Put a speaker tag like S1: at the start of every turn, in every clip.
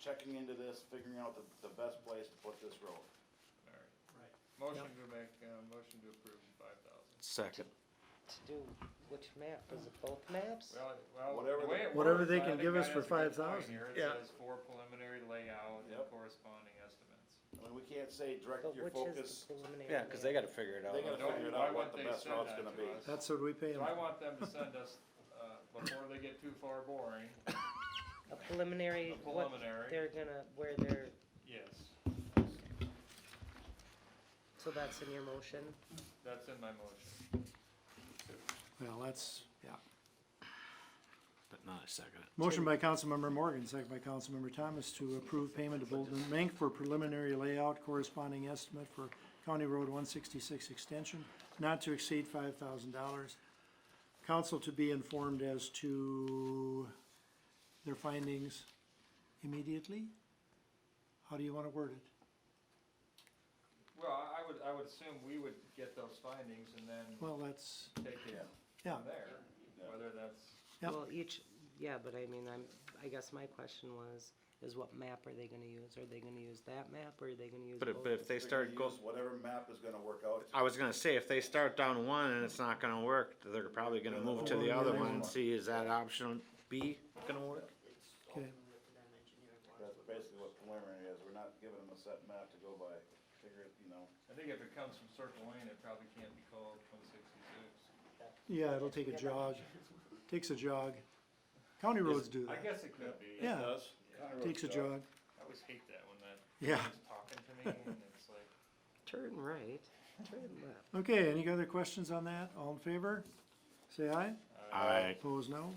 S1: checking into this, figuring out the, the best place to put this road.
S2: all right.
S3: Right.
S2: Motion to make, uh, motion to approve five thousand.
S4: Second.
S5: to do which map? Was it both maps?
S2: Well, it- well,
S1: Whatever
S2: the way
S1: they-
S2: it
S3: Whatever
S2: works,
S3: they
S2: I
S3: can
S2: think
S3: give
S2: that
S3: us
S2: is
S3: for
S2: a good point
S3: 5,000,
S2: here. It
S3: yeah.
S2: says for preliminary layout and
S1: Yep.
S2: corresponding estimates.
S1: I mean, we can't say direct
S5: But
S1: your
S5: which is
S1: focus,
S5: the preliminary?
S4: Yeah, cause they gotta figure it out.
S1: they gotta
S2: Don't-
S1: figure it
S2: why
S1: out
S2: wouldn't
S1: what the
S2: they
S1: best
S2: send
S1: route's
S2: that
S1: gonna
S2: to
S1: be.
S2: us?
S3: That's what we pay
S2: So
S3: them.
S2: I want them to send us, uh, before they get too far boring,
S5: A preliminary,
S2: a
S5: what
S2: preliminary,
S5: they're gonna, where they're,
S2: yes,
S5: so that's in your motion?
S2: that's in my motion.
S3: Well, that's, yeah.
S4: But not a second.
S3: Motion by Councilmember Morgan, second by Councilmember Thomas to approve payment to Bolton and Mink for preliminary layout corresponding estimate for County Road one sixty-six extension, not to exceed five thousand dollars. Council to be informed as to their findings immediately? How do you wanna word it?
S2: Well, I I would, I would assume we would get those findings and then
S3: Well, that's,
S2: take it
S1: Yeah.
S3: yeah,
S2: from there, whether that's,
S3: Yep.
S5: Well, each, yeah, but I mean, I'm, I guess my question was, is what map are they gonna use? Are they gonna use that map or are they gonna use
S4: But if,
S5: both?
S4: but if they
S1: They're
S4: start
S1: gonna
S4: go,
S1: use Whatever map is gonna work out.
S4: I was gonna say, if they start down one and it's not gonna work, they're probably gonna move to the other one and see, is that option B gonna work?
S6: It's
S3: Okay.
S6: ultimately up to them engineering wise.
S1: That's basically what preliminary is, we're not giving them a set map to go by, figure it, you know.
S2: I think if it comes from Circle Lane, it probably can't be called one sixty-six.
S3: yeah, it'll take a jog, takes a jog. County roads do
S2: I
S3: that,
S2: guess it could be.
S3: Yeah. takes a jog,
S2: I always hate that when that
S3: yeah.
S2: is talking to me and it's like,
S5: Turn right, turn left.
S3: Okay, any other questions on that? All in favor? Say aye.
S2: Uh,
S4: Alright.
S3: Opposed, no.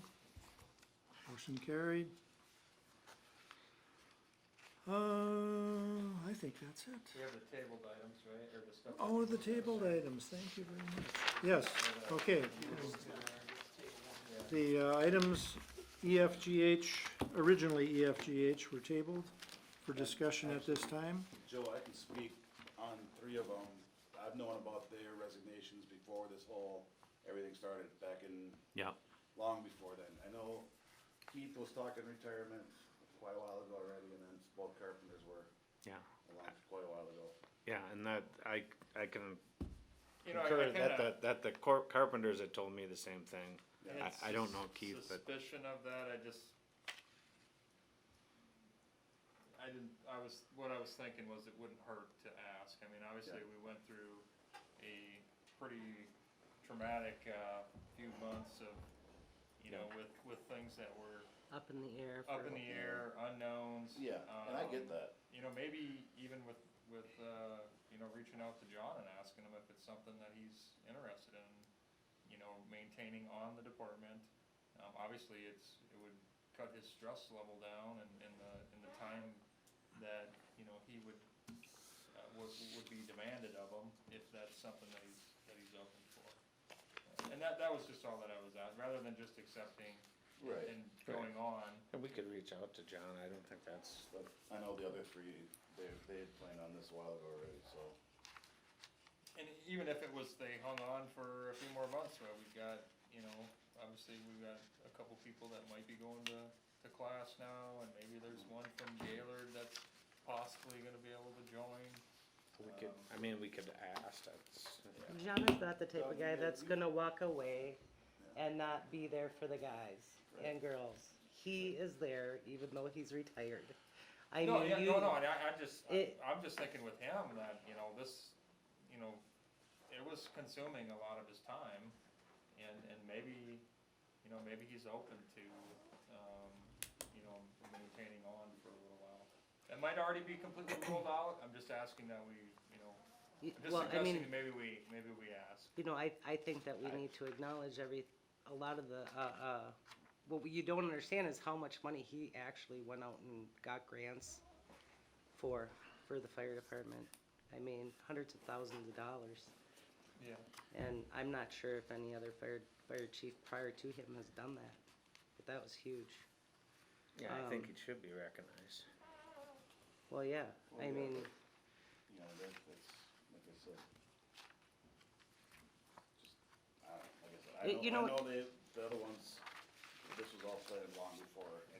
S3: Motion carried. Uh, I think that's it.
S2: we have the tabled items, right, or the stuff.
S3: Oh, the tabled items, thank you very much. Yes, okay. The uh, items E EFGH, originally E EFGH were tabled for discussion at this time.
S1: Joe, I can speak on three of them. I've known about their resignations before this whole, everything started back in,
S4: Yeah.
S1: long before then. I know Keith was talking retirement quite a while ago already, and then both carpenters were
S4: Yeah,
S1: along quite a while ago.
S4: yeah, and that, I, I can
S2: You know, I- I
S4: concur that,
S2: kinda-
S4: that, that the cor- carpenters had told me the same thing.
S2: and
S4: I-
S2: it's
S4: I don't know
S2: sus-
S4: Keith, but-
S2: Suspicion of that, I just. I didn't, I was, what I was thinking was it wouldn't hurt to ask, I mean, obviously, we went through a pretty traumatic, uh, few months of, you know, with, with things that were
S5: Up in the air.
S2: up
S5: for-
S2: in the air, unknowns.
S1: Yeah, and I get
S2: um,
S1: that.
S2: you know, maybe even with, with, uh, you know, reaching out to John and asking him if it's something that he's interested in, you know, maintaining on the department. Um, obviously, it's, it would cut his stress level down and, and the, and the time that, you know, he would, uh, would, would be demanded of him, if that's something that he's, that he's open for. And that, that was just all that I was at, rather than just accepting and going on,
S4: And we could reach out to John, I don't think that's,
S1: But I know the other three, they, they had planned on this a while ago already, so.
S2: And even if it was they hung on for a few more months, right, we've got, you know, obviously we've got a couple people that might be going to, to class now, and maybe there's one from Gaylord that's possibly gonna be able to join.
S4: we could, I mean, we could ask, that's,
S5: John is not the type of guy that's gonna walk away and not be there for the guys and girls. He is there even though he's retired. I
S2: No,
S5: mean,
S2: yeah,
S5: you,
S2: no, no, and I, I just, I-
S5: it-
S2: I'm just thinking with him that, you know, this, you know, it was consuming a lot of his time, and, and maybe, you know, maybe he's open to, um, you know, maintaining on for a little while. It might already be completely ruled out, I'm just asking that we, you know,
S5: you-
S2: I'm just
S5: well, I mean,
S2: suggesting that maybe we, maybe we ask.
S5: you know, I, I think that we need to acknowledge every, a lot of the, uh, uh, what you don't understand is how much money he actually went out and got grants for, for the fire department. I mean, hundreds of thousands of dollars.
S2: Yeah.
S5: And I'm not sure if any other fire, fire chief prior to him has done that, but that was huge.
S4: yeah, I think it
S5: Um,
S4: should be recognized.
S5: Well, yeah, I
S1: yeah.
S5: mean,
S1: you know, that, that's, like I said. Just, I, don't- like I said, I
S5: Y-
S1: know,
S5: you
S1: I
S5: know-
S1: know they, the other ones, this was all planned long before